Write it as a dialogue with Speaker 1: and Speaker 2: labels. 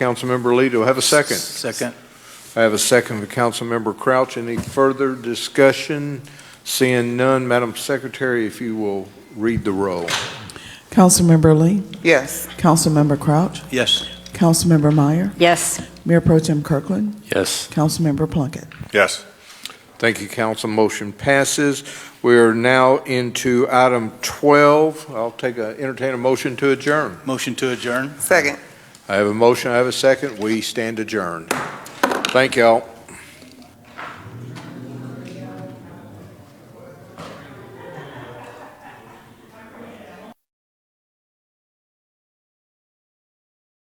Speaker 1: Councilmember Lee, do I have a second?
Speaker 2: Second.
Speaker 1: I have a second for Councilmember Crouch. Any further discussion? Seeing none, Madam Secretary, if you will read the roll.
Speaker 3: Councilmember Lee,
Speaker 4: Yes.
Speaker 3: Councilmember Crouch,
Speaker 2: Yes.
Speaker 3: Councilmember Meyer,
Speaker 5: Yes.
Speaker 3: Mayor Pro Tem Kirkland,
Speaker 2: Yes.
Speaker 3: Councilmember Plunkett.
Speaker 6: Yes.
Speaker 1: Thank you, council. Motion passes. We are now into item 12. I'll take a, entertain a motion to adjourn.
Speaker 2: Motion to adjourn?
Speaker 4: Second.
Speaker 1: I have a motion, I have a second. We stand adjourned. Thank y'all.